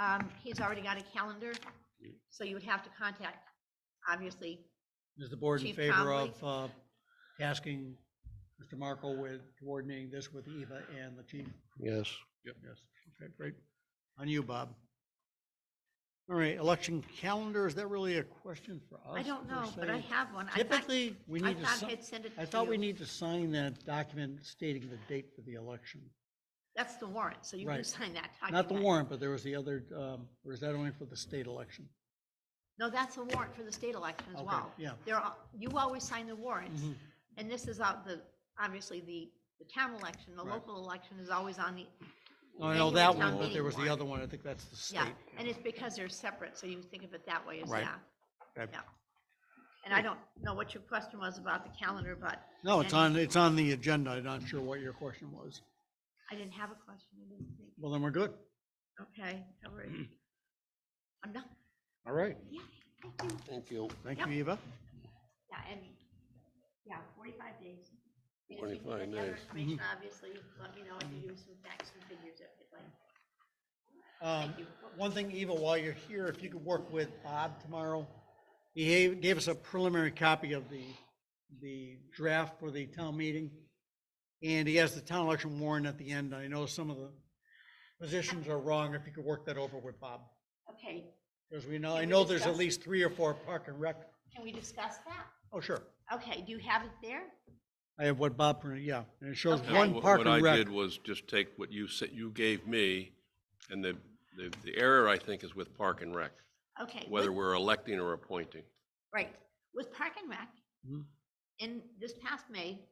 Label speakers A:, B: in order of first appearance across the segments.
A: um, he's already got a calendar, so you would have to contact, obviously.
B: Is the board in
A: Chief
B: favor
A: Conley?
B: of uh, tasking Mr. Markle with coordinating this with Eva and the chief?
C: Yes.
B: Yep. Yes, okay, great. On you, Bob. All right, election calendar, is that really a question for us?
A: I don't
B: per
A: know, but I
B: se?
A: have one. I thought,
B: Typically, we
A: I
B: need to,
A: thought
B: si-
A: I'd send it to
B: I thought we
A: you.
B: need to sign that document stating the date for the election.
A: That's the warrant, so you can
B: Right.
A: sign that.
B: Not the
A: document.
B: warrant, but there was the other, um, or is that only for the state election?
A: No, that's a warrant for the state election as
B: Okay,
A: well.
B: yeah. Mm-hmm.
A: There are, you always sign the warrants, and this is out the, obviously, the, the town election, the
B: Right.
A: local election is always on the,
B: I know
A: Annual
B: that
A: town
B: one, but there
A: meeting
B: was the
A: warrant.
B: other one, I think that's the
A: yeah,
B: state.
A: and it's because they're separate, so you think of it that way as
B: Right.
A: that.
B: Okay.
A: Yeah. And I don't know what your question was about the calendar, but
B: No, it's
A: any-
B: on, it's on the agenda, I'm not sure what your question was.
A: I didn't have a question, I didn't think.
B: Well, then we're good.
A: Okay, all right. I'm done,
C: Mm. All right.
A: yeah, thank you.
C: Thank you.
B: Thank
A: Yep.
B: you, Eva.
A: Yeah, and, yeah, forty-five days. And if you can
C: 45
A: get the other
C: days. Mm-hmm.
A: Information, obviously, let me know if you use some facts and figures if you'd like.
B: Um,
A: Thank you.
B: One thing, Eva, while you're here, if you could work with Bob tomorrow, he gave- gave us a preliminary copy of the, the draft for the town meeting. And he has the town election warrant at the end. I know some of the positions are wrong. If you could work that over with Bob.
A: Okay,
B: Because we know, I
A: Can we
B: know there's at
A: discuss-
B: least three or four park and rec.
A: can we discuss that?
B: Oh, sure.
A: Okay, do you have it there?
B: I have what Bob, printed, yeah, and it shows
A: Okay.
B: one
D: Wh-
B: park and
D: What I
B: rec.
D: did was just take what you said, you gave me, and the, the- the error, I think, is with Park and Rec,
A: Okay. with-
D: whether we're electing or appointing.
A: Right, with Park and Rec,
B: Mhm.
A: in this past May,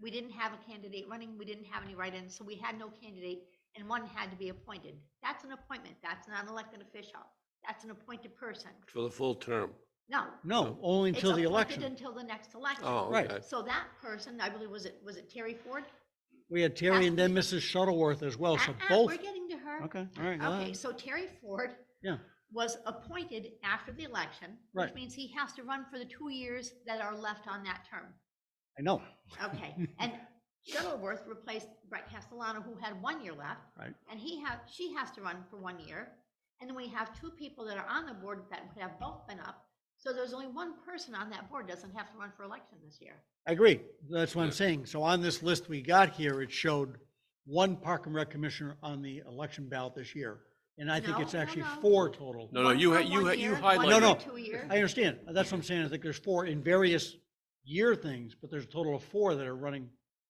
A: we didn't have a candidate running, we didn't have any write-ins, so we had no candidate, and one had to be appointed. That's an appointment, that's not an elected official, that's an appointed person.
C: For the full term.
A: No.
B: No, only
A: it's
B: until the
A: appointed
B: election.
A: Until the next election.
C: Oh,
B: Right.
C: okay.
A: So that person, I believe, was it, was it Terry Ford?
B: We had Terry and then Mrs. Shuttleworth as well, Oh, so
A: Uh-uh,
B: both,
A: We're getting to her.
B: okay, all right, well,
A: Okay, so Terry Ford
B: yeah,
A: was appointed after the election, which
B: Right.
A: means he has to run for the two years that are left on that term.
B: I know,
A: Okay, and Shuttleworth replaced Brett Castellano, who had one year left,
B: right,
A: and he have, she has to run for one year. And then we have two people that are on the board that have both been up, so there's only one person on that board doesn't have to run for election this year.
B: I agree, that's what I'm saying, so on this list we got here, it showed one park and rec commissioner on the election ballot this year, and I think
A: No,
B: it's
A: no,
B: actually
A: no.
B: four total.
D: No, no,
A: One
D: you,
A: for
D: ha- you,
A: one
D: ha- you
A: year, one
D: highlighted.
B: No, no.
A: for Two years.
B: I understand, that's what I'm saying, I think there's four in various year things, but there's a total of four that are running,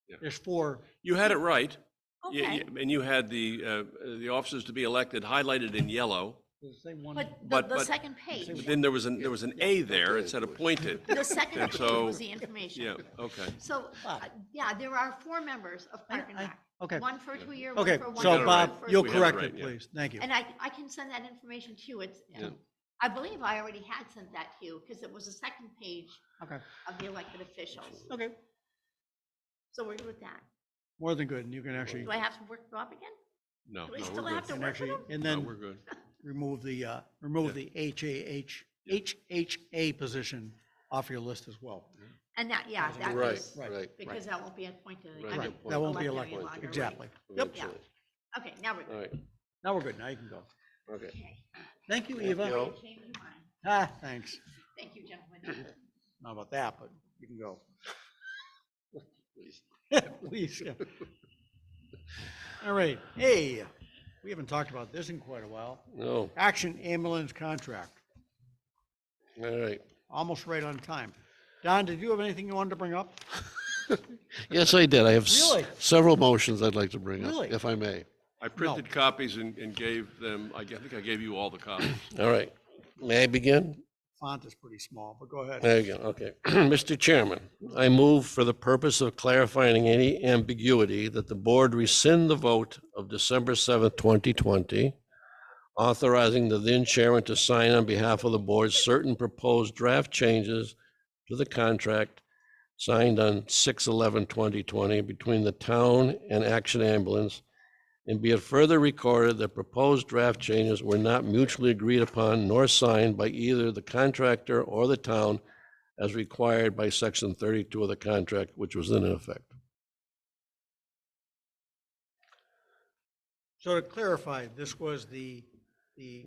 D: Yeah.
B: there's four,
D: You had it right. Y-
A: Okay.
D: y- And you had the, uh, the officers to be elected highlighted in yellow,
B: the same one.
A: But the,
D: But-
A: the
D: but-
A: second page,
D: but then there was an, there was an A there, it said appointed.
A: the second
D: And
A: page
D: so-
A: was the information.
D: Yeah, okay.
A: So,
B: Wow.
A: uh, yeah, there are four members of Park and
B: I-
A: Rec.
B: okay.
A: One for two year, one
B: Okay,
A: for one year.
B: so
D: it
A: one
B: Bob,
A: for-
B: you'll
D: We have it
B: correct
D: right,
B: it,
D: yeah.
B: please, thank you.
A: And I, I can send that information to you. It's, I believe I already had sent that to you because it was the second page
B: Okay,
A: of the elected officials.
B: okay,
A: So we're good with that.
B: more than good, and you can actually,
A: Do I have to work Bob again?
D: No,
A: Do we
D: no,
A: still
D: we're
A: have to
D: good.
B: and
A: work with
B: actually,
A: him?
B: and
D: No,
B: then
D: we're good.
B: remove the, uh, remove the HAH, HHA position off your list as well.
A: And that, yeah, that
C: Right,
A: is,
B: Right.
C: right.
A: because that won't be appointed. I
C: Right.
A: mean,
B: Right, that won't be
A: elected any
B: elected,
A: longer, right.
B: exactly. Yep,
A: Yeah.
C: Eventually.
A: Okay, now we're
C: All
A: good.
C: right,
B: now we're good, now you can go.
C: okay.
A: Okay.
B: Thank you,
C: Thank
B: Eva.
C: you.
A: I changed my mind.
B: Ah, thanks,
A: Thank you, gentlemen.
B: not about that, but you can go.
C: Please.
B: Please, yeah. All right, hey, we haven't talked about this in quite a while.
C: No,
B: Action ambulance contract,
C: all right.
B: almost right on time. Don, did you have anything you wanted to bring up?
C: Yes, I did. I have s-
B: Really?
C: several motions I'd like to bring
B: Really?
C: up, if I may.
D: I printed copies and, and gave them, I g- I think I gave you all the copies.
C: All right. May I begin?
B: Font is pretty small, but go ahead.
C: There you go, okay. Mr. Chairman, I move for the purpose of clarifying any ambiguity that the board rescind the vote of December seventh, twenty twenty, authorizing the then chairman to sign on behalf of the board certain proposed draft changes to the contract signed on 2020 between the town and Action Ambulance. And be it further recorded that proposed draft changes were not mutually agreed upon nor signed by either the contractor or the town as required by section thirty-two of the contract, which was then in effect.
B: So to clarify, this was the, the